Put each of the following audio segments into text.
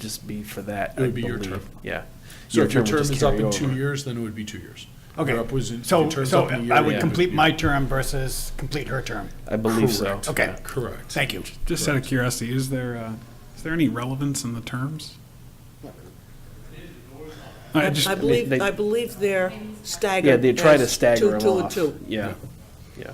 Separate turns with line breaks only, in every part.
just be for that.
It would
I
be your
believe.
term.
Yeah.
So if your
would
term
just
is up
carry
in two
over.
years, then it would be two years.
Okay,
Your up was in-
so,
your term's
so
up in a year,
I
then
would
it
complete
be-
my term versus complete her term.
I believe so.
Correct.
Okay,
Correct.
thank you.
Just out of curiosity, is there, uh, is there any relevance in the terms? I just,
I
They-
believe,
they-
I believe they're staggered.
Yeah, they try to
as
stagger
Two, two,
them
and
off.
two.
Yeah, yeah.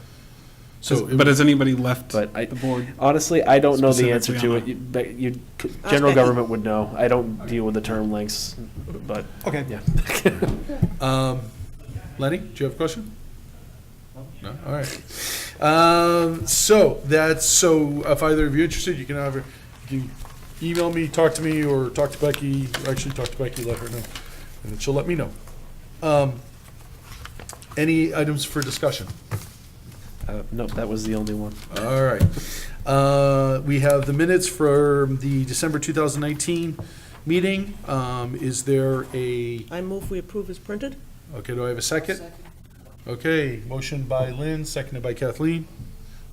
So, it-
but has anybody left
But I,
the board?
honestly, I don't know the answer
Specifically
to
on
it.
that.
You- But you, general
Okay.
government would know. I don't deal with the term lengths, but,
Okay.
yeah.
um, Lenny, do you have a question? No, all right. Um, so that's, so if either of you are interested, you can either, you can email me, talk to me, or talk to Becky, actually talk to Becky, let her know, and then she'll let me know. Um, any items for discussion?
Uh, Nope, that was the only one.
All right. Uh, We have the minutes from the December 2019 meeting. Um, Is there a,
I move we approve as printed.
okay, do I have a second?
Second.
Okay, motion by Lynn, seconded by Kathleen.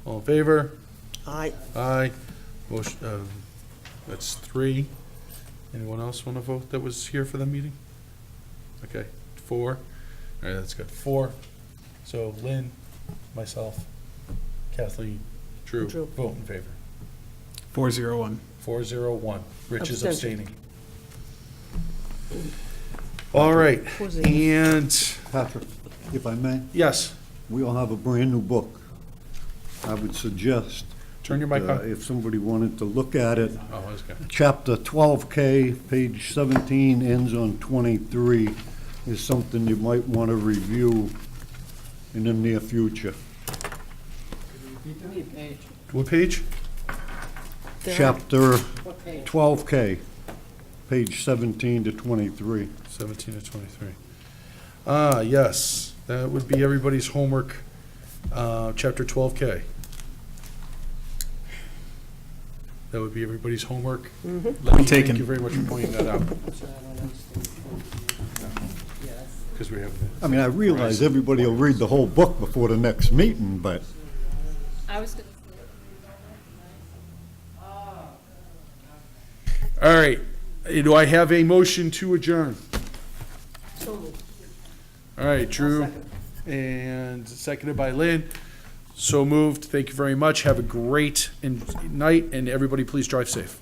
All in favor?
Aye.
Aye. Motion, uh, that's three. Anyone else want to vote that was here for the meeting? Okay, four. All right, that's good. Four. So Lynn, myself, Kathleen, Drew,
Drew.
vote in favor.
Four zero one.
Four zero one. Rich is
Abstention.
abstaining. All right,
Four zero.
and,
Patrick, if I may,
yes,
we all have a brand-new book. I would suggest,
turn your
uh,
mic on.
if somebody wanted to look at it,
Oh, that's good.
chapter 12K, page 17, ends on 23, is something you might want to review in the near future.
What page?
There.
Chapter 12K, page 17 to 23.
17 to 23. Ah, yes, that would be everybody's homework, uh, chapter 12K. That would be everybody's homework.
Mm-hmm.
Lenny, Thank
taken.
you very much for pointing that out. Because we have,
I mean, I realize everybody will read the whole book before the next meeting, but
I was gonna
all right, do I have a motion to adjourn? All right, Drew, and seconded by Lynn. So moved, thank you very much, have a great and- night, and everybody please drive safe.